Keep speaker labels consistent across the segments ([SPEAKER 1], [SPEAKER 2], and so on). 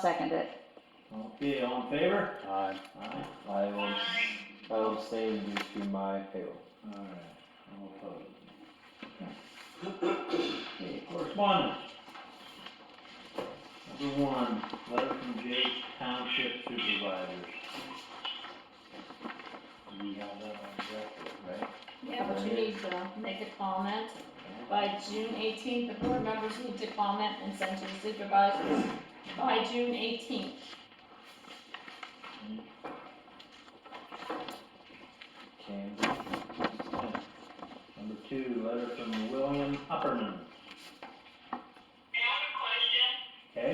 [SPEAKER 1] Second it.
[SPEAKER 2] Okay, all in favor?
[SPEAKER 3] Aye.
[SPEAKER 2] Aye.
[SPEAKER 3] I will, I will abstain due to my payroll.
[SPEAKER 2] Alright, all opposed. Okay, correspondence. Number one, letter from Jake Township Supervisors. We have that on record, right?
[SPEAKER 4] Yeah, but you need to make a comment. By June eighteenth, the board members need to comment and send to the supervisors by June eighteenth.
[SPEAKER 3] Can,
[SPEAKER 2] Number two, letter from William Upperman,
[SPEAKER 5] I have a question
[SPEAKER 2] okay?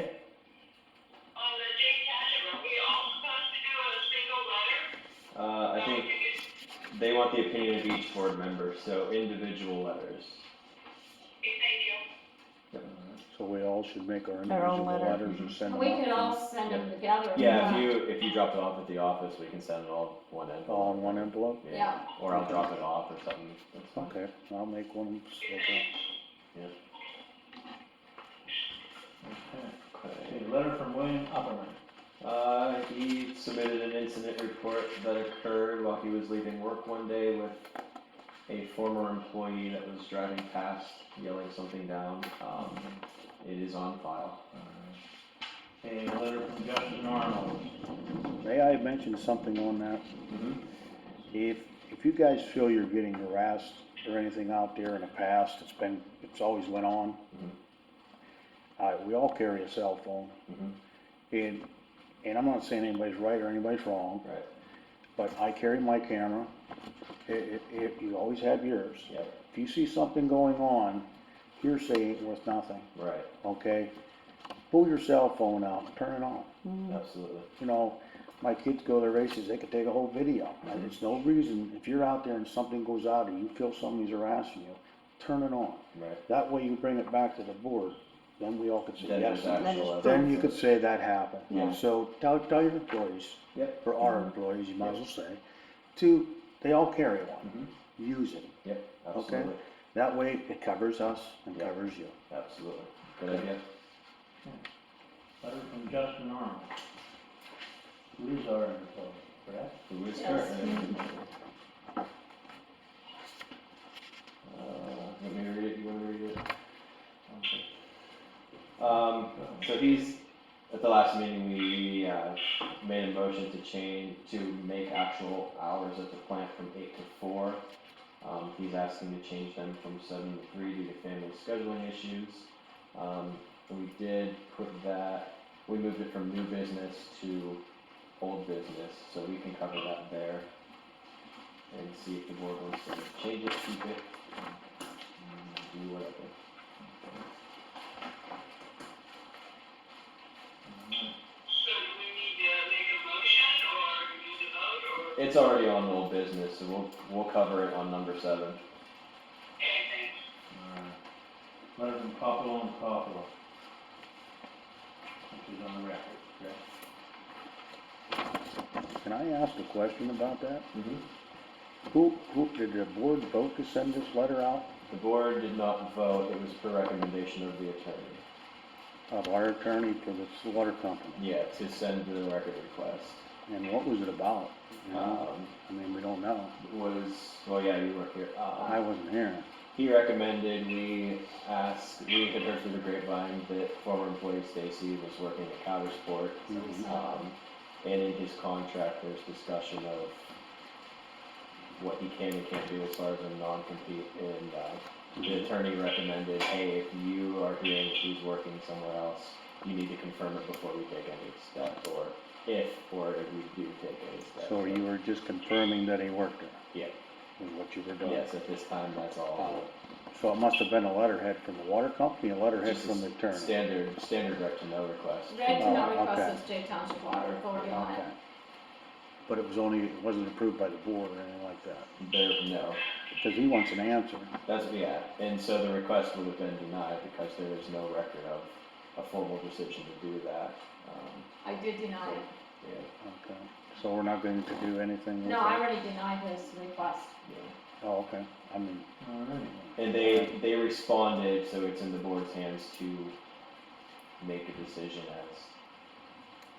[SPEAKER 5] on the Jake Township, are we all supposed to do a single letter?
[SPEAKER 3] uh, I think they want the opinion of each board member, so individual letters.
[SPEAKER 5] Thank you.
[SPEAKER 6] So we all should make our
[SPEAKER 1] Our own
[SPEAKER 6] individual
[SPEAKER 1] letter.
[SPEAKER 6] letters and send them
[SPEAKER 4] We
[SPEAKER 6] out
[SPEAKER 4] could
[SPEAKER 6] to-
[SPEAKER 4] all send them together. if
[SPEAKER 3] Yeah, if
[SPEAKER 4] you want.
[SPEAKER 3] you, if you drop it off at the office, we can send it all in one envelope.
[SPEAKER 6] All in one envelope?
[SPEAKER 3] Or I'll drop it off or something, that's fine.
[SPEAKER 6] Okay, I'll make one, okay.
[SPEAKER 2] Okay,
[SPEAKER 3] Okay.
[SPEAKER 2] Okay, letter from William Upperman.
[SPEAKER 3] Uh, he submitted an incident report that occurred while he was leaving work one day with a former employee that was driving past, yelling something down. Um, it is on file.
[SPEAKER 2] Alright. Okay, letter from Justin Arnold.
[SPEAKER 6] May I mention something on that?
[SPEAKER 3] Mm-hmm.
[SPEAKER 6] If, if you guys feel you're getting harassed or anything out there in the past, it's been, it's always went on. Uh, we all carry a cell phone.
[SPEAKER 3] Mhm.
[SPEAKER 6] And, and I'm not saying anybody's right or anybody's wrong,
[SPEAKER 3] Right,
[SPEAKER 6] but I carry my camera. It, it, it, you always have yours.
[SPEAKER 3] yep,
[SPEAKER 6] If you see something going on, hearsay ain't worth nothing.
[SPEAKER 3] right,
[SPEAKER 6] okay? Pull your cell phone out, and turn it on.
[SPEAKER 1] Mm.
[SPEAKER 3] absolutely.
[SPEAKER 6] You know, my kids go to races, they could take a whole video. And There's no reason, if you're out there and something goes out or you feel somebody's harassing you, turn it on.
[SPEAKER 3] Right.
[SPEAKER 6] That way you bring it back to the board, then we all could say
[SPEAKER 3] Then there's
[SPEAKER 6] yes.
[SPEAKER 3] actual
[SPEAKER 1] Then
[SPEAKER 6] Then you
[SPEAKER 3] evidence.
[SPEAKER 6] could say that happened.
[SPEAKER 3] Yeah.
[SPEAKER 6] So tell, tell your employees,
[SPEAKER 3] Yep.
[SPEAKER 6] or our employees, you might as well say, to, they all carry
[SPEAKER 3] Mhm.
[SPEAKER 6] one. Use it.
[SPEAKER 3] Yep, absolutely,
[SPEAKER 6] That way it covers us and
[SPEAKER 3] Yeah.
[SPEAKER 6] covers you.
[SPEAKER 3] absolutely. Good idea.
[SPEAKER 2] Letter from Justin Arnold. Who is our employee, correct?
[SPEAKER 3] Who is
[SPEAKER 4] Yes.
[SPEAKER 3] current? Uh, let me to read it, you wanna read it? Um, so he's, at the last meeting, we, uh, made a motion to change, to make actual hours at the plant from eight to four. Um, he's asking to change them from seven to three due to family scheduling issues. Um, we did put that, we moved it from new business to old business, so we can cover that there. And see if the board wants to change it, keep it, and do whatever.
[SPEAKER 5] So do we need to make a motion or we need to vote or
[SPEAKER 3] It's already on old business, so we'll, we'll cover it on number seven.
[SPEAKER 5] anything?
[SPEAKER 2] Alright. Letter from Popolo and Popolo. Which is on the record, correct?
[SPEAKER 6] Can I ask a question about that?
[SPEAKER 3] Mhm.
[SPEAKER 6] Who, who, did the board vote to send this letter out
[SPEAKER 3] The board did not vote, it was per recommendation of the attorney.
[SPEAKER 6] of our attorney to this water company?
[SPEAKER 3] Yeah, to send the record request.
[SPEAKER 6] And what was it about? You know,
[SPEAKER 3] Um,
[SPEAKER 6] I mean, we don't know.
[SPEAKER 3] was, well, yeah, you were here. Um,
[SPEAKER 6] I wasn't here.
[SPEAKER 3] He recommended we ask, we had heard through the grapevine that former employee Stacy was working at Cowersport.
[SPEAKER 6] Mhm.
[SPEAKER 3] Um, and in his contract, there's discussion of what he can and can't do as far as a non-compete. And, uh, the attorney recommended, hey, if you are hearing that he's working somewhere else, you need to confirm it before we take any step, or if, or if we do take any step.
[SPEAKER 6] So you were just confirming that he worked there?
[SPEAKER 3] Yeah.
[SPEAKER 6] Is what you were doing?
[SPEAKER 3] Yes, at this time, that's all.
[SPEAKER 6] So it must have been a letterhead from the water company, a letterhead
[SPEAKER 3] Just a
[SPEAKER 6] from the attorney?
[SPEAKER 3] Standard, standard rec to no request.
[SPEAKER 4] Red to
[SPEAKER 6] Oh,
[SPEAKER 4] not
[SPEAKER 6] okay.
[SPEAKER 4] request is Jake Township Water Authority on it.
[SPEAKER 6] Okay. But it was only, it wasn't approved by the board or anything like that?
[SPEAKER 3] There, no,
[SPEAKER 6] Because he wants an answer.
[SPEAKER 3] that's, yeah, and so the request would have been denied because there is no record of a formal decision to do that. Um,
[SPEAKER 4] I did deny it.
[SPEAKER 3] yeah,
[SPEAKER 6] Okay. So we're not going to do anything with
[SPEAKER 4] No,
[SPEAKER 6] that?
[SPEAKER 4] I already denied his request.
[SPEAKER 3] yeah.
[SPEAKER 6] Oh, okay. I mean,
[SPEAKER 2] Alright.
[SPEAKER 3] And they, they responded, so it's in the board's hands to make a decision as